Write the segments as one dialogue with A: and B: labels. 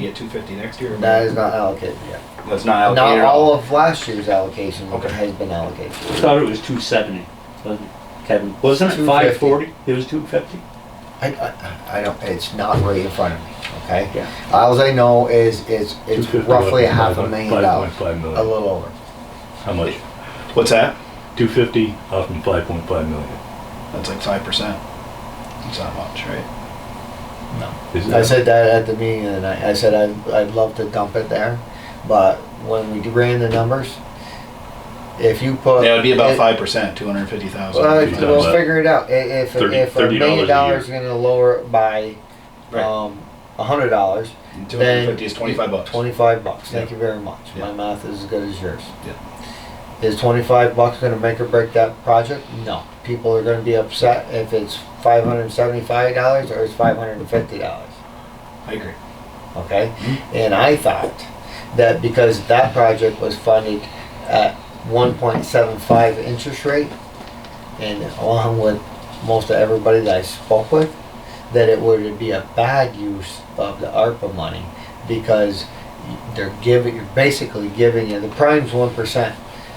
A: get two fifty next year?
B: That is not allocated yet.
A: That's not
B: Not
A: allocated at all.
B: all of last year's allocation
A: Okay.
B: has been allocated.
C: I thought it was two seventy, wasn't it, Kevin? Wasn't it
B: 250.
C: five forty? It was two fifty?
B: I, I, I don't, it's not right in front of me, okay?
C: Yeah.
B: Alls I know is, it's, it's
D: 250
B: roughly a
D: was
B: half a
D: 5.5
B: million dollars, a
D: 5.5 million.
B: little over.
D: How much?
A: What's that?
D: Two fifty off from five point five million.
A: That's like five percent. It's not much, right?
D: Is
B: I
D: it-
B: said that at the meeting the other night. I said I'd, I'd love to dump it there, but when we ran the numbers, if you put.
A: Yeah, it'd be about
B: it-
A: five percent, two hundred and fifty thousand.
B: Well,
D: You're
B: we'll
D: talking about
B: figure it out. I- If,
D: $30
B: if a
D: $30
B: million
D: a year.
B: dollars is gonna lower it by,
A: Right.
B: um, a hundred dollars,
A: Two hundred and
B: then
A: fifty is twenty-five bucks.
B: Twenty-five bucks, thank
A: Yeah.
B: you very much. My
A: Yeah.
B: math is as good as yours.
A: Yeah.
B: Is twenty-five bucks gonna make or break that project? No. People are gonna be upset if it's five hundred and seventy-five dollars or it's five hundred and fifty dollars,
A: I agree.
B: okay? And I thought that because that project was funded at one point seven five interest rate and along with most of everybody that I spoke with, that it would be a bad use of the ARPA money because they're giving, you're basically giving you, the prime's one percent,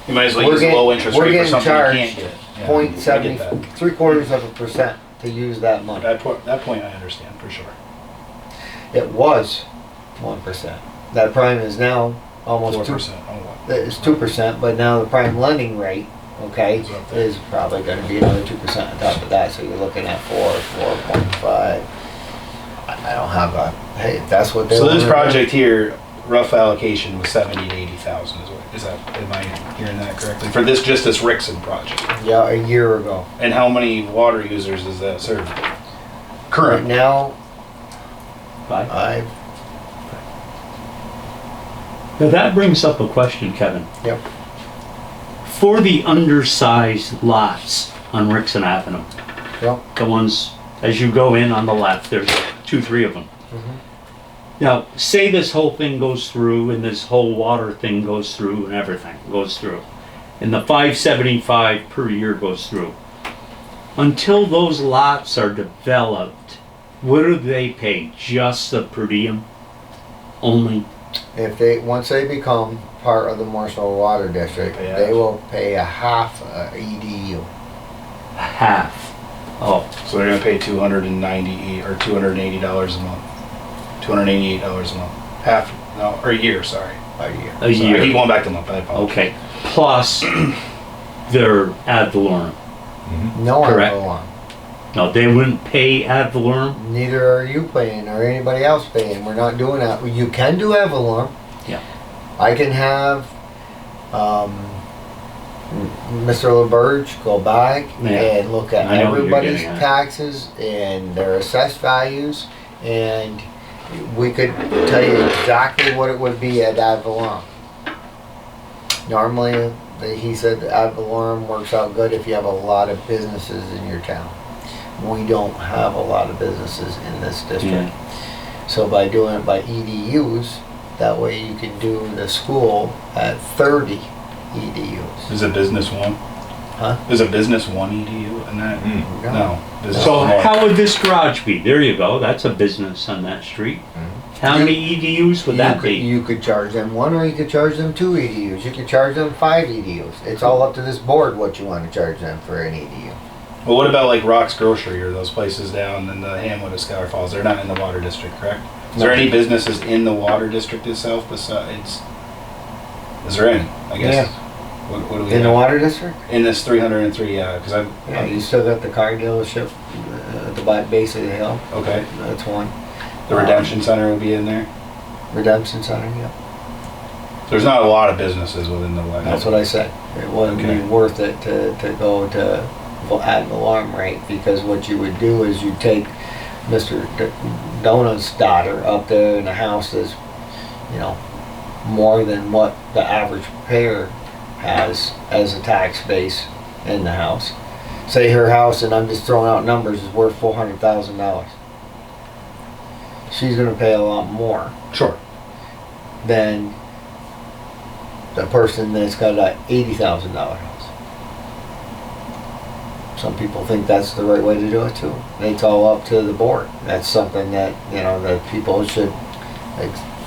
A: You might as well
B: We're
A: use a
B: getting-
A: low interest
B: we're
A: rate for
B: getting
A: something you
B: charged
A: can't get. Yeah, I
B: point
A: get
B: seventy,
A: that.
B: three quarters of a percent to use that money.
A: That point, that point I understand for sure.
B: It was one percent. That prime is now
A: Four
B: almost two
A: percent, oh, wow.
B: it's two percent, but now the prime lending rate, okay,
A: Is up there.
B: is probably gonna be another two percent on top of that, so you're looking at four, four point five. I I don't have a, hey, if that's what they.
A: So this
B: wanna do-
A: project here, rough allocation was seventy to eighty thousand is what, is that, am I hearing that correctly? For this, just this Rixon project?
B: Yeah, a year ago.
A: And how many water users is that served?
B: Right
A: Current,
B: now,
C: Five?
B: I,
C: Now that brings up a question, Kevin.
B: Yep.
C: For the undersized lots on Rixon Avenue,
B: Yep.
C: the ones, as you go in on the left, there's two, three of them.
B: Mm-hmm.
C: Now, say this whole thing goes through and this whole water thing goes through and everything goes through. And the five seventy-five per year goes through. Until those lots are developed, what do they pay? Just the per diem? Only?
B: if they, once they become part of the Marshall Water District,
A: Yeah.
B: they will pay a half uh, EDU.
C: Half. Oh,
A: so they're gonna pay two hundred and ninety, or two hundred and eighty dollars a month. Two hundred and eighty-eight dollars a month, half, no, or a year, sorry.
B: A year.
C: a
A: Sorry, I keep
C: year.
A: going back to month, I apologize.
C: Okay. Plus their ad valorem.
B: No one
C: Correct.
B: will on.
C: No, they wouldn't pay ad valorem?
B: Neither are you paying or anybody else paying. We're not doing that. You can do Avalon.
C: Yeah.
B: I can have um, Mr. LeBurge go back
C: Yeah.
B: and look at
C: I know what you're
B: everybody's
C: getting at.
B: taxes and their assessed values, and we could tell you exactly what it would be at Avalon. Normally, the- he said Avalon works out good if you have a lot of businesses in your town. We don't have a lot of businesses in this district. So by doing it by EDUs, that way you can do the school at thirty E EDUs.
A: Is a business one?
B: Huh?
A: Is a business one EDU and that?
D: Hmm.
A: No. business
C: So
A: is more.
C: how would this garage be? There you go, that's a business on that street. How many EDUs would
B: you
C: that
B: could,
C: be?
B: You could charge them one, or you could charge them two EDUs. You could charge them five EDUs. It's all up to this board what you want to charge them for an E EDU.
A: Well, what about like Rock's Grocery or those places down in the Hamlet of Scholar Falls? They're not in the water district, correct? Is there any businesses in the water district itself besides? Is there any? I guess. What, what do we
B: In the
A: have?
B: water district?
A: in this 303? Yeah, because I'm.
B: Yeah, you still got the car dealership uh, at the bi- base of the hill.
A: Okay,
B: That's one.
A: the Redemption Center would be in there.
B: Redemption Center, yeah.
A: There's not a lot of businesses within the water.
B: That's what I said. It wouldn't
A: Okay.
B: be worth it to, to go to vo- ad alarm rate because what you would do is you take Mr. D- Donut's daughter up there in a house that's, you know, more than what the average payer has as a tax base in the house. Say her house, and I'm just throwing out numbers, is worth four hundred thousand dollars. She's gonna pay a lot more
A: Sure.
B: than the person that's got a eighty thousand dollar house. Some people think that's the right way to do it too. It's all up to the board. That's something that, you know, that people should ex-